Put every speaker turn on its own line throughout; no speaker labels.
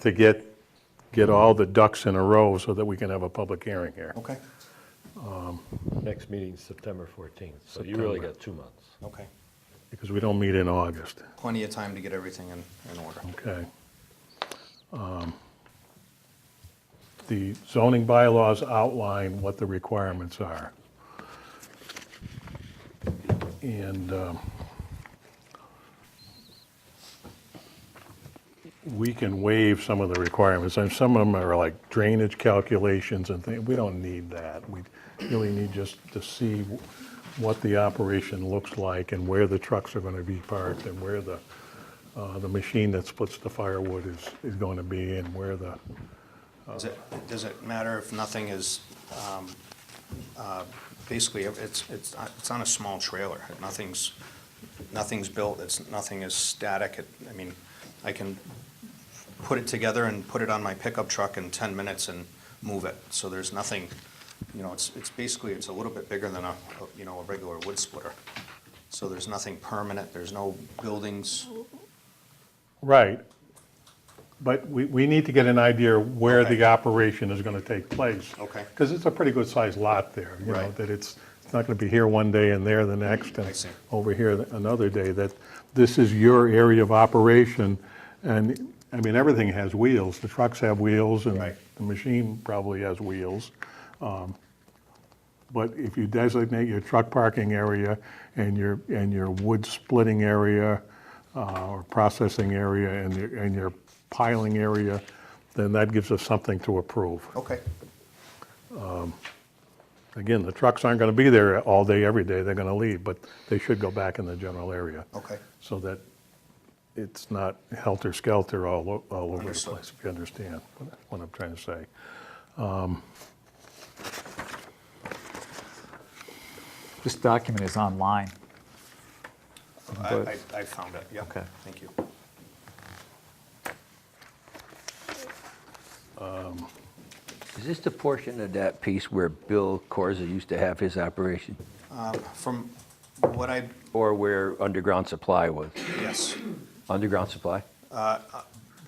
to get, get all the ducks in a row so that we can have a public hearing here.
Okay,
Next meeting's September 14th, so you really
September.
got two months.
okay.
Because we don't meet in August,
Plenty of time to get everything in, in order.
okay? Um, The zoning bylaws outline what the requirements are. And um, we can waive some of the requirements, and some of them are like drainage calculations and things, we don't need that. We really need just to see what the operation looks like and where the trucks are gonna be parked and where the, uh, the machine that splits the firewood is, is gonna be and where the,
Does it, does it matter if nothing is, um, uh, basically, if it's, it's, it's on a small trailer, nothing's, nothing's built, it's, nothing is static, It- I mean, I can put it together and put it on my pickup truck in ten minutes and move it, so there's nothing, you know, it's, it's basically, it's a little bit bigger than a, a, you know, a regular wood splitter. So there's nothing permanent, there's no buildings,
right. But we, we need to get an idea where
Okay.
the operation is gonna take place.
Okay.
Because it's a pretty good sized lot there, you know,
Right.
that it's, it's not gonna be here one day and there the next.
I
and
see.
Over here th- another day, that this is your area of operation. And, I mean, everything has wheels. The trucks have wheels and
Right.
the machine probably has wheels. But if you designate your truck parking area and your, and your wood splitting area uh, or processing area and your, and your piling area, then that gives us something to approve.
okay,
Again, the trucks aren't going to be there all day, every day, they're going to leave, but they should go back in the general area
okay,
so that it's not helter-skelter all, o- all over the
Understood.
place, if you understand what- what I'm trying to say.
This document is online.
I,
But-
I, I found it, yeah,
Okay.
thank you.
Is this the portion of that piece where Bill Corza used to have his operation?
From what I,
Or where Underground Supply was?
yes,
Underground Supply?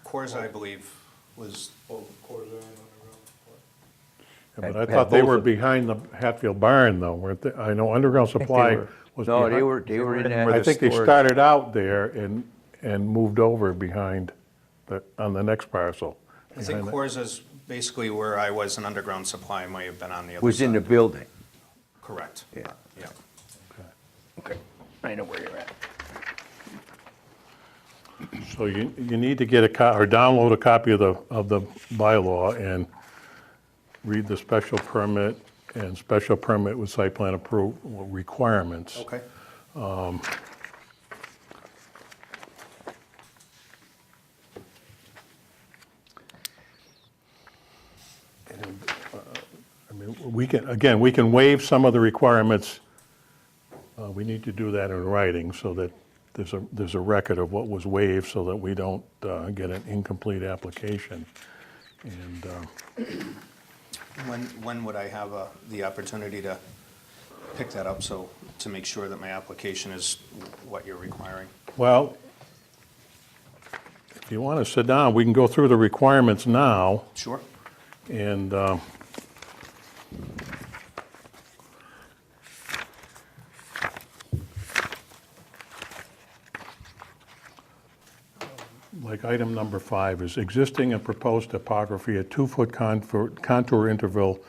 Coors, I believe, was,
Yeah, But I
Had- had
thought they
both
were
of them.
behind the Hatfield Barn though, weren't they? I know Underground
they
Supply
were.
was.
No, they
behind-
were, they were in that.
I think they started out there and, and moved over behind, the on the next parcel.
I think
behind the-
Coors is basically where I was in underground supply, might have been on the other side.
Was in the building.
Correct.
Yeah.
Yeah.
Okay, I know where you're at.
So you, you need to get a, co- or download a copy of the, of the bylaw and read the special permit and special permit with site plan approval requirements.
Okay,
I mean, we can, again, we can waive some of the requirements. Uh, We need to do that in writing so that there's a, there's a record of what was waived so that we don't uh, get an incomplete application. And um,
when, when would I have uh, the opportunity to pick that up, so, to make sure that my application is what you're requiring?
Well, if you want to sit down, we can go through the requirements now,
Sure?
and um, like item number five is existing and proposed topography at two-foot contour contour interval,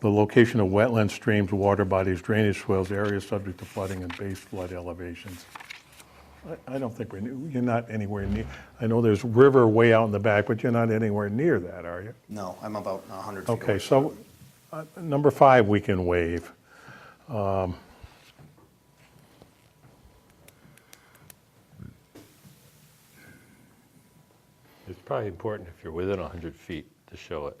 the location of wetlands, streams, water bodies, drainage swales, areas subject to flooding and base flood elevations. I I don't think we're, ne- you're not anywhere near, I know there's river way out in the back, but you're not anywhere near that, are you?
No, I'm about 100 feet away.
Okay, so uh, number five, we can waive. Um,
It's probably important if you're within 100 feet to show it.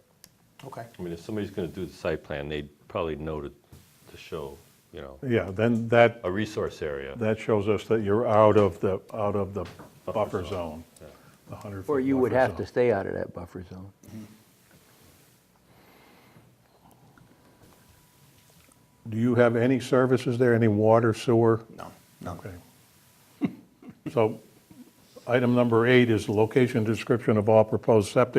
Okay,
I mean, if somebody's going to do the site plan, they'd probably know to, to show, you know,
Yeah, then that,
a resource area.
that shows us that you're out of the, out of the buffer zone, the 100
Or you would have to stay out of that buffer zone.
Do you have any services there, any water, sewer?
no, no.
Okay. So item number eight is the location description of all proposed septic